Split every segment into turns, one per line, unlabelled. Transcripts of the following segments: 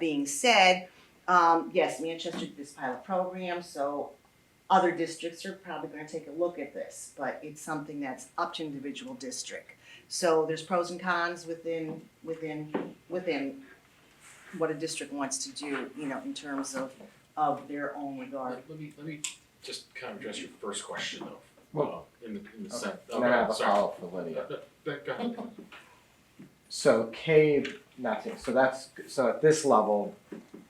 being said, um, yes, Manchester did this pilot program, so other districts are probably gonna take a look at this, but it's something that's up to individual district. So there's pros and cons within, within, within what a district wants to do, you know, in terms of, of their own regard.
Let let me, let me just kind of address your first question though.
Well-
Uh, In the, in the
Okay,
sense.
and then I have a
sorry.
follow-up for Lydia.
But go ahead.
So cave, nothing, so that's, so at this level,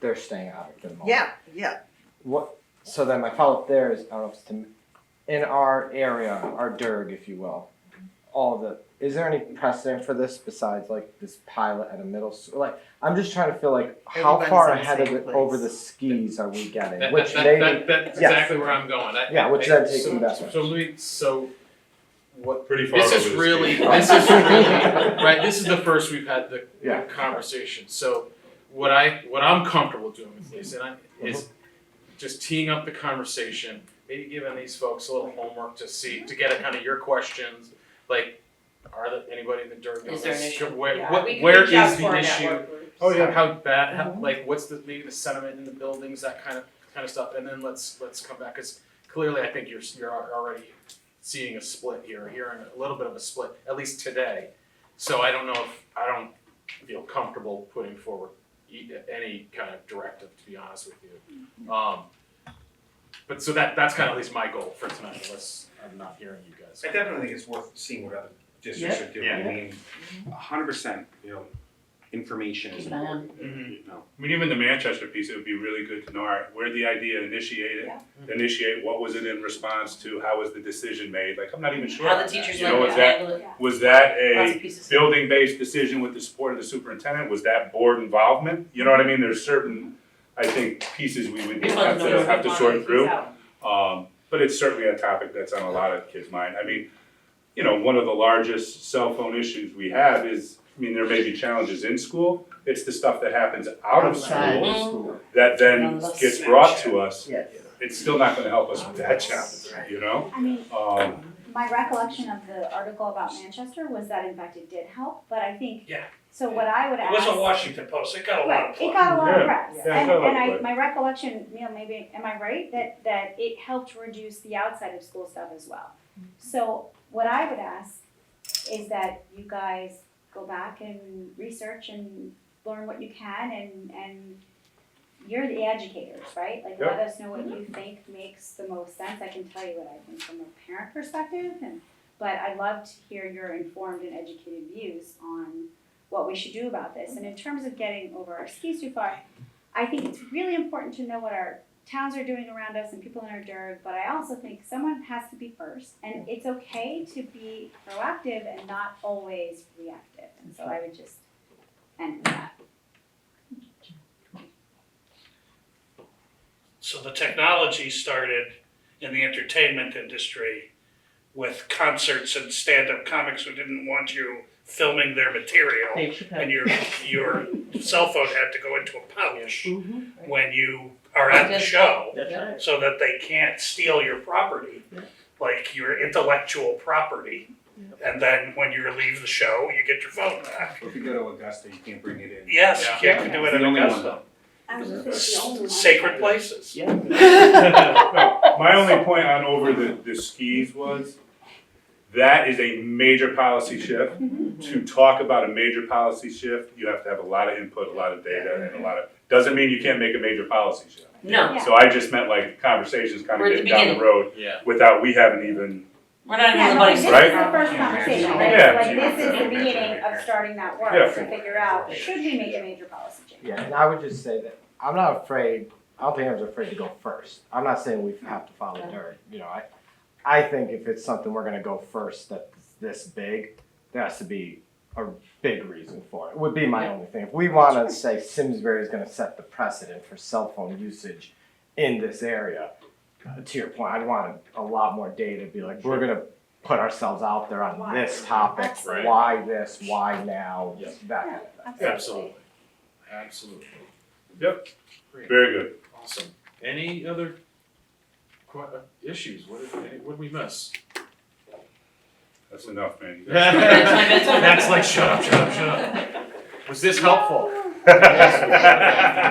they're staying out of the moment.
Yeah, yeah,
What, so then my follow-up there is, I don't know if it's to, in our area, our DIRG, if you will, all the, is there any precedent for this besides like this pilot at a middle school? Like, I'm just trying to feel like, how
Everybody's
far
in the
ahead of
same
it over
place.
the skis are we
That-
getting? Which
that-
maybe,
that- That's
yes.
exactly where I'm going. I-
Yeah,
I
which
think-
then takes me
so-
back to-
So let me, so what,
Pretty far
this
over
is
the
really,
speed.
this is really, right, this is the first we've had the
Yeah.
the conversation. So what I, what I'm comfortable doing with this, and I, is just teeing up the conversation, maybe giving these folks a little homework to see, to get at kind of your questions, like, are there, anybody in the dirt?
Is there an issue?
Where,
Yeah,
what,
we can
where
reach out
is
to our
the issue?
network groups.
Oh yeah. Mm-hmm. How bad? How,
Mhm.
like, what's the maybe the sentiment in the buildings, that kind of kind of stuff, and then let's let's come back because clearly I think you're you're al- already seeing a split here, hearing a little bit of a split at least today. So I don't know if I don't feel comfortable putting forward e- any kind of directive, to be honest with you. Um, but so that that's kind of at least my goal for tonight, unless I'm not hearing you guys.
I definitely think it's worth seeing what other districts are doing, I mean, a hundred percent, you know, information is
Keep an eye on
important,
Mhm.
you know.
I mean, even the Manchester piece, it would be really good to know, all right, where the idea initiated,
Yeah.
initiate, what was it in response to, how was the decision made, like, I'm not even sure.
How
on
the
that.
teachers
You
like
know,
to
was that,
handle it,
was that
lots
a
of pieces.
building-based decision with the support of the superintendent, was that board involvement? You know what I mean, there's certain, I think, pieces we would
We want
have
to know
to,
what's
have to
going on
sort
with
through.
these out.
Um, but it's certainly a topic that's on a lot of kids' mind. I mean, you know, one of the largest cell phone issues we have is, I mean, there may be challenges in school. It's the stuff that happens out of
outside
school
of school.
that then gets brought to us.
Yes.
It's still not gonna help us with that challenge, you know?
I mean,
Um,
my recollection of the article about Manchester was that in fact it did help, but I think.
Yeah.
So what I would
It
ask.
was a Washington Post, it got a lot
Right,
of
it
play.
got a lot
Yeah,
of press,
yeah, it
and,
got a lot
and
of
I,
press.
my recollection, you know, maybe, am I right, that, that it helped reduce the outside of school stuff as well? So what I would ask is that you guys go back and research and learn what you can and, and you're the educators, right? Like, let us know what you think makes the most sense, I can tell you what I think from a parent perspective and, but I'd love to hear your informed and educated views on what we should do about this. And in terms of getting over our skis too far, I think it's really important to know what our towns are doing around us and people in our dirt, but I also think someone has to be first. And it's okay to be proactive and not always reactive. And so I would just end with that.
So the technology started in the entertainment industry with concerts and stand-up comics who didn't want you filming their material. And your, your cell phone had to go into a pouch when you are at the
Just-
show.
That's right.
so that they can't steal your property, like your intellectual property. And then when you leave the show, you get your phone back.
If you go to Augusta, you can't bring it in.
Yes, you
Yeah.
can't do
It's
it
the
in
only one,
Augusta.
I was just
Sacred places.
My only point on over the, the skis was, that is a major policy shift.
Mm-hmm.
To talk about a major policy shift, you have to have a lot of input, a lot of data, and a lot of, doesn't mean you can't make a major policy shift.
No,
Yeah.
So I just meant like conversations kind
We're
of
at the
getting down the
beginning.
road
Yeah.
without we haven't even,
we're not even
Yeah,
the
no, this
buddies.
is the
Right?
first conversation, right?
Yeah.
So like this is the
Yeah.
beginning of starting that
Yeah.
work to figure out, should we make a major policy change?
Yeah, and I would just say that I'm not afraid. I don't think I was afraid to go first. I'm not saying we have to follow dirt. You know, I, I think if it's something we're gonna go first that's this big, there has to be a big reason for it. Would be my only thing. If we want to say Simsbury is gonna set the precedent for cell phone usage in this area, uh, to your point, I'd want a lot more data. to Be like, we're gonna put ourselves out there on
Why?
this topic.
Right.
Why this? Why now?
Yeah.
That.
Yeah,
Absolutely. Absolutely.
Yep.
Great.
very good.
Awesome. Any other que- uh, issues? What did, any- what did we miss?
That's enough, man.
That's my- that's my-
That's like, shut up, shut up, shut up. Was this helpful? Yes, we should.